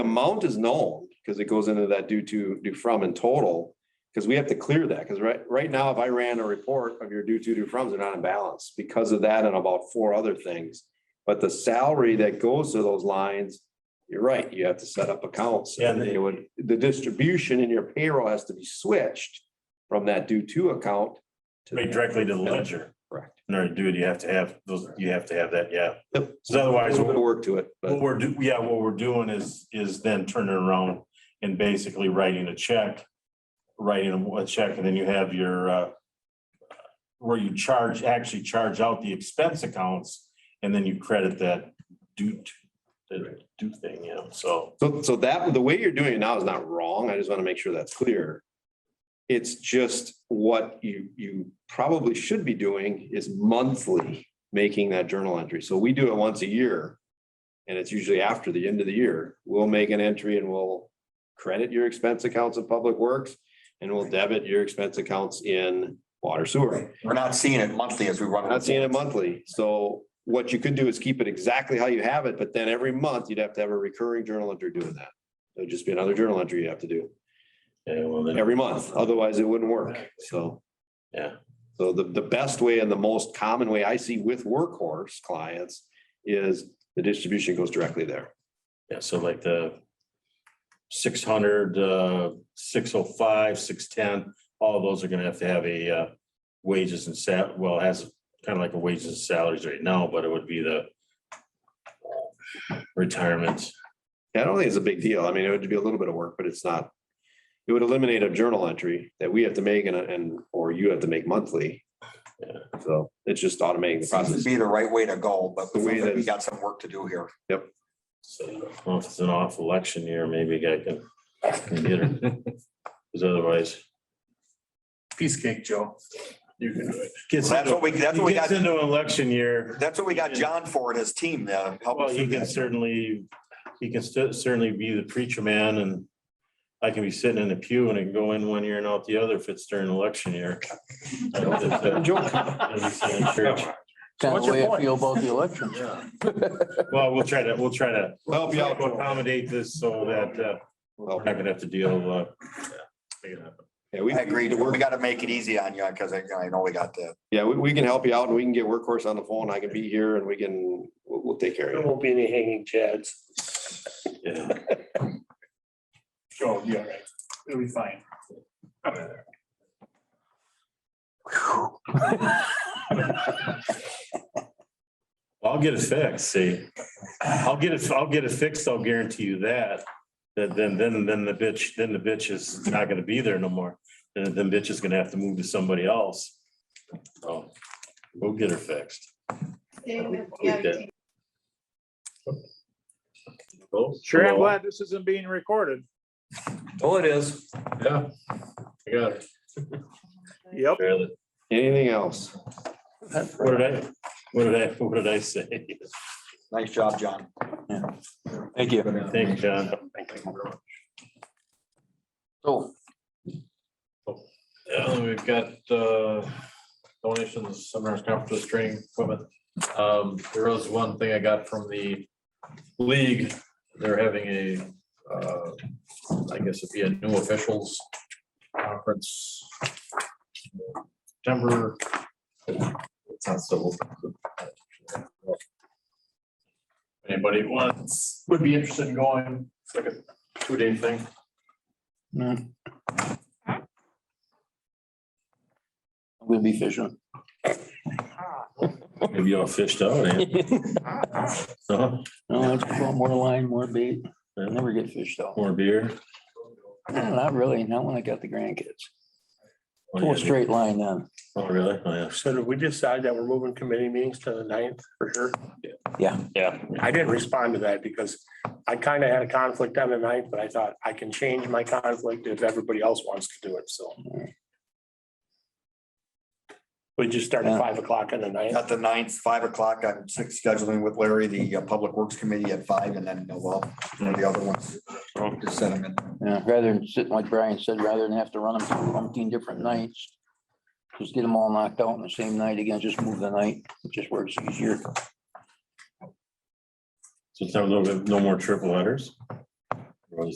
amount is known, because it goes into that due to, due from in total. Because we have to clear that, because right, right now, if I ran a report of your due to, due froms, they're not in balance because of that and about four other things. But the salary that goes to those lines, you're right, you have to set up accounts. Yeah. And they would, the distribution in your payroll has to be switched from that due to account. to Right, directly to the ledger. Correct. In order to do it, you have to have those, you have to have that, yeah. Yep. So otherwise, A little bit of what work to it, but. we're do, yeah, what we're doing is, is then turning around and basically writing a check. Writing a- a check and then you have your, uh, where you charge, actually charge out the expense accounts and then you credit that due, to- the due thing, yeah, so. So, so that, the way you're doing it now is not wrong. I just want to make sure that's clear. It's just what you, you probably should be doing is monthly making that journal entry. So we do it once a year. And it's usually after the end of the year. We'll make an entry and we'll credit your expense accounts of public works. And we'll debit your expense accounts in water sewer. We're not seeing it monthly as we run. I'm Not seeing it monthly, so what you could do is keep it exactly how you have it, but then every month you'd have to have a recurring journal entry doing that. There'd just be another journal entry you have to do Yeah, well, then, every month, otherwise it wouldn't work, so. Yeah. So the, the best way and the most common way I see with workhorse clients is the distribution goes directly there. yeah, so like the six hundred, uh, six oh five, six ten, all those are gonna have to have a, uh, wages and sal, well, it has kind of like a wages and salaries right now, but it would be the retirement. I don't think it's a big deal, I mean, it would be a little bit of work, but it's not. It would eliminate a journal entry that we have to make and, and, or you have to make monthly. Yeah. So it's just automating the Seems process. to be the right way to go, but The way that- we got some work to do here. So well, if it's an off election year, maybe I can get her. Because otherwise. Piece cake, Joe. You can do it. Gets That's into, what we, that's what we gets got, into an election year. that's what we got John for and his team to help Well, us. he with can that. certainly, he can cer- certainly be the preacher man and I can be sitting in a pew and I can go in one year and out the other if it's during election year. I don't think that- that'd be sitting in church. Kind of What's your way I point? feel about the election. Well, we'll try to, we'll try to We'll Help you out. accommodate this so that uh, we're not gonna have to deal. uh, make it happen. Yeah, we I agree. we- We gotta make it easy on you because I, I know we got the, Yeah, we, we can help you out and we can get workhorse on the phone. I can be here and we can, we'll, we'll take care of There you. won't be any hanging chads. Yeah. Joe, you're right. It'll be fine. I'll get it fixed, see. I'll get it, I'll get it fixed, I'll guarantee you that. That then, then, then the bitch, then the bitch is not gonna be there no more. Then, then bitch is gonna have to move to somebody else. So we'll get her fixed. David, Sure, I'm glad this isn't being recorded. Oh, it is. Yeah. I got it. Yep. Barely. Anything else? What did I, what did I, what did I say? nice job, John. Thank you. Thank you, John. So, Yeah, we've got uh, donations, seminars, conferences, training equipment. Um, There was one thing I got from the league. They're having a, uh, I guess it'd be a new officials conference. September. It's not so uh, open. Anybody wants, would be interested in going, it's like a two-day thing. I'm gonna be fishing. Maybe you all fished out, eh? So, No, I just want more line, more bait. I never get fished though. More beer. Not really, not when I got the grandkids. Oh, Pull a yeah. straight line then. Oh, really? Oh, yeah. So did we decide that we're moving committee meetings to the ninth for sure? Yeah. Yeah. I didn't respond to that because I kind of had a conflict on the ninth, but I thought I can change my conflict if everybody else wants to do it, so. We just start at Yeah. five o'clock on the ninth. At the ninth, five o'clock, I'm six scheduling with Larry, the uh, Public Works Committee at five and then, uh, well, one of the other ones. Oh. Just set them in. Yeah, rather than sit like Brian said, rather than have to run them through umpteen different nights. Just get them all knocked out on the same night again, just move the night. It just works easier. So it's not a little bit, no more triple headers?